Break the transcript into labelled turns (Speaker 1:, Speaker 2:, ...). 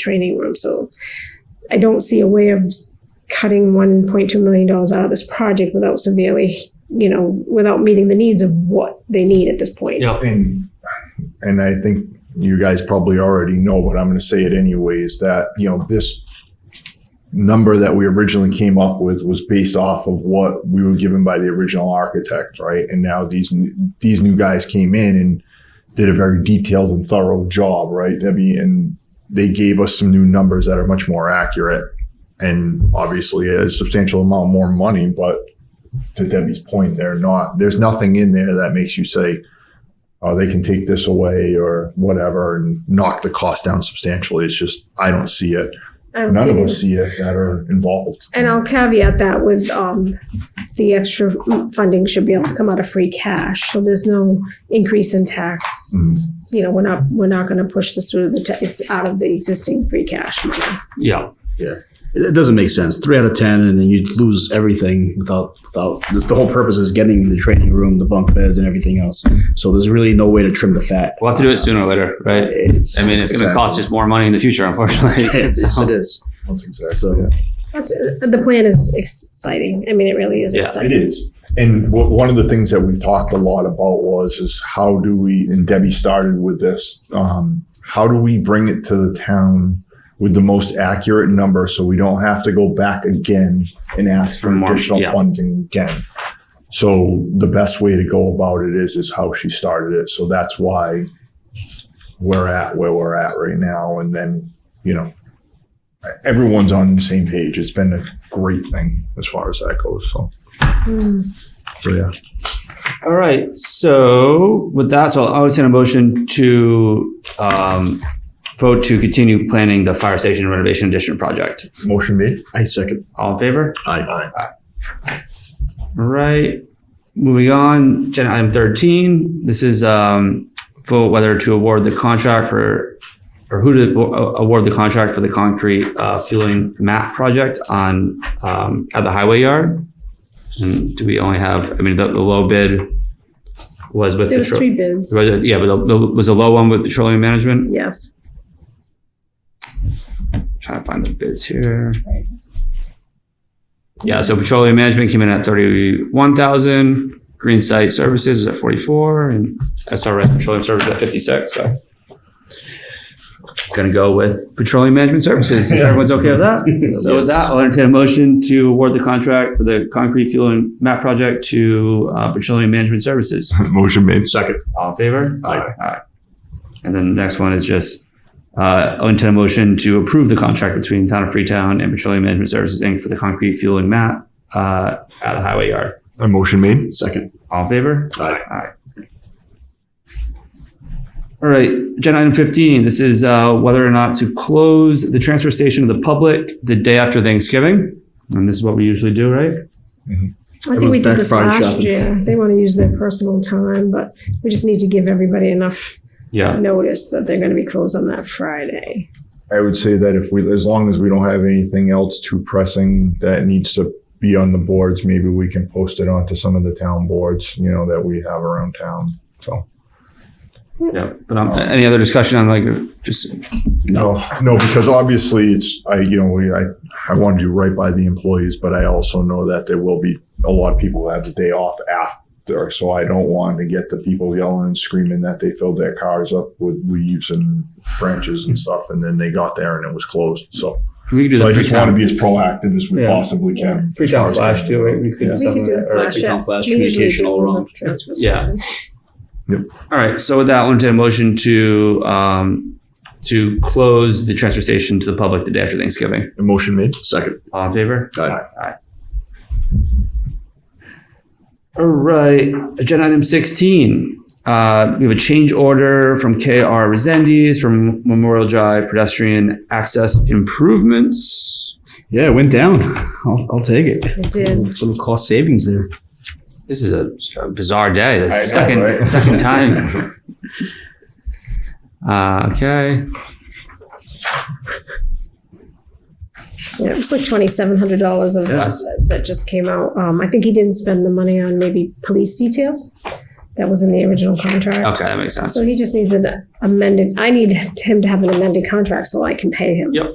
Speaker 1: training room. So I don't see a way of cutting $1.2 million out of this project without severely, you know, without meeting the needs of what they need at this point.
Speaker 2: Yeah.
Speaker 3: And and I think you guys probably already know, but I'm going to say it anyways. That you know this number that we originally came up with was based off of what we were given by the original architect, right? And now these n- these new guys came in and did a very detailed and thorough job, right, Debbie? And they gave us some new numbers that are much more accurate and obviously a substantial amount more money. But to Debbie's point, they're not. There's nothing in there that makes you say, oh, they can take this away or whatever and knock the cost down substantially. It's just, I don't see it.
Speaker 1: I don't
Speaker 3: None
Speaker 1: see
Speaker 3: of
Speaker 1: it.
Speaker 3: us see it that are involved.
Speaker 1: And I'll caveat that with um, the extra funding should be able to come out of free cash. So there's no increase in tax.
Speaker 3: Mhm.
Speaker 1: You know, we're not, we're not going to push this through the, ta- it's out of the existing free cash money.
Speaker 2: Yeah.
Speaker 4: It it doesn't make sense. Three out of ten, and then you lose everything without without. This the whole purpose is getting the training room, the bunk beds, and everything else. So there's really no way to trim the fat.
Speaker 2: We'll have to do it sooner or later, right?
Speaker 4: It's,
Speaker 2: I mean, it's going to
Speaker 4: exactly.
Speaker 2: cost us more money in the future, unfortunately.
Speaker 4: Yes, yes, it is.
Speaker 3: That's exactly
Speaker 4: So-
Speaker 3: it.
Speaker 1: That's, the plan is exciting. I mean, it really is
Speaker 2: Yeah.
Speaker 3: It
Speaker 1: exciting.
Speaker 3: is. And wha- one of the things that we talked a lot about was is how do we and Debbie started with this. Um, how do we bring it to the town with the most accurate number so we don't have to go back again and ask for
Speaker 2: For more,
Speaker 3: additional
Speaker 2: yeah.
Speaker 3: funding again? So the best way to go about it is is how she started it. So that's why we're at where we're at right now. And then you know everyone's on the same page. It's been a great thing as far as that goes. So.
Speaker 1: Hmm.
Speaker 3: So yeah.
Speaker 2: All right. So with that, so I'll entertain a motion to um, vote to continue planning the fire station renovation addition project.
Speaker 3: Motion made.
Speaker 4: I second.
Speaker 2: All in favor?
Speaker 3: Aye. Aye.
Speaker 2: All right. Moving on, agenda item 13. This is um, vote whether to award the contract for, or who to a- award the contract for the concrete uh, fueling mat project on, um, at the highway yard. And do we only have, I mean, the, the low bid was with.
Speaker 1: There was
Speaker 2: petro-
Speaker 1: three bids.
Speaker 2: was it- Yeah, but the- the- was the low one with petroleum management?
Speaker 1: Yes.
Speaker 2: Trying to find the bids here. Yeah, so petroleum management came in at thirty-one thousand, green site services was at forty-four, and SRS petroleum services at fifty-six, so. Gonna go with petroleum management services, if
Speaker 3: Yeah.
Speaker 2: everyone's okay with that. So with that, I'll entertain a motion to award the contract for the concrete fueling map project to, uh, petroleum management services.
Speaker 3: Motion made.
Speaker 4: Second.
Speaker 2: All in favor?
Speaker 3: Aye.
Speaker 2: Aye. And then the next one is just, uh, I'll entertain a motion to approve the contract between Town of Freetown and Petroleum Management Services, Inc. for the concrete fueling mat, uh, at the highway yard.
Speaker 3: A motion made.
Speaker 4: Second.
Speaker 2: All in favor?
Speaker 4: Aye.
Speaker 2: All right, agenda item fifteen, this is, uh, whether or not to close the transfer station to the public the day after Thanksgiving. And this is what we usually do, right?
Speaker 1: I think we
Speaker 4: Everyone's
Speaker 1: did this
Speaker 4: back Friday
Speaker 1: last
Speaker 4: shopping.
Speaker 1: year. They want to use their personal time, but we just need to give everybody enough
Speaker 2: Yeah,
Speaker 1: notice that they're going to be closed on that Friday.
Speaker 3: I would say that if we, as long as we don't have anything else too pressing that needs to be on the boards, maybe we can post it onto some of the town boards, you know, that we have around town. So
Speaker 2: yeah, but, um, any other discussion on like, just,
Speaker 3: no, no, because obviously it's I, you know, we I I wanted you right by the employees, but I also know that there will be a lot of people who have the day off after, so I don't want to get the people yelling and screaming that they filled their cars up with leaves and branches and stuff, and then they got there and it was closed. So.
Speaker 2: we could do
Speaker 3: So
Speaker 2: the
Speaker 3: I just want
Speaker 2: Freetown.
Speaker 3: to be as proactive as we
Speaker 2: Yeah.
Speaker 3: possibly can.
Speaker 2: Freetown Flash too, right? We could do
Speaker 1: We could
Speaker 2: something,
Speaker 1: do
Speaker 2: like-
Speaker 1: a
Speaker 2: or like
Speaker 1: flash.
Speaker 2: Freetown Flash
Speaker 1: We usually
Speaker 2: communication
Speaker 1: do
Speaker 2: all
Speaker 1: a
Speaker 2: around.
Speaker 1: transfer
Speaker 2: Yeah.
Speaker 1: station.
Speaker 2: All right, so with that, I'll entertain a motion to, um, to close the transfer station to the public the day after Thanksgiving.
Speaker 3: Motion made.
Speaker 4: Second.
Speaker 2: All in favor?
Speaker 4: Aye.
Speaker 2: All right, agenda item sixteen. Uh, we have a change order from KR Resendes from Memorial Drive pedestrian access improvements.
Speaker 4: Yeah, it went down. I'll, I'll take it.
Speaker 1: It did.
Speaker 4: Little cost savings there.
Speaker 2: This is a bizarre day, the
Speaker 3: know,
Speaker 2: second,
Speaker 3: right?
Speaker 2: second time. Uh, okay.
Speaker 1: Yeah, it was like twenty-seven hundred dollars of
Speaker 2: Yes.
Speaker 1: that just came out. Um, I think he didn't spend the money on maybe police details. that was in the original contract.
Speaker 2: Okay, that makes sense.
Speaker 1: So he just needs an amended, I need him to have an amended contract so I can pay him.
Speaker 2: Yep.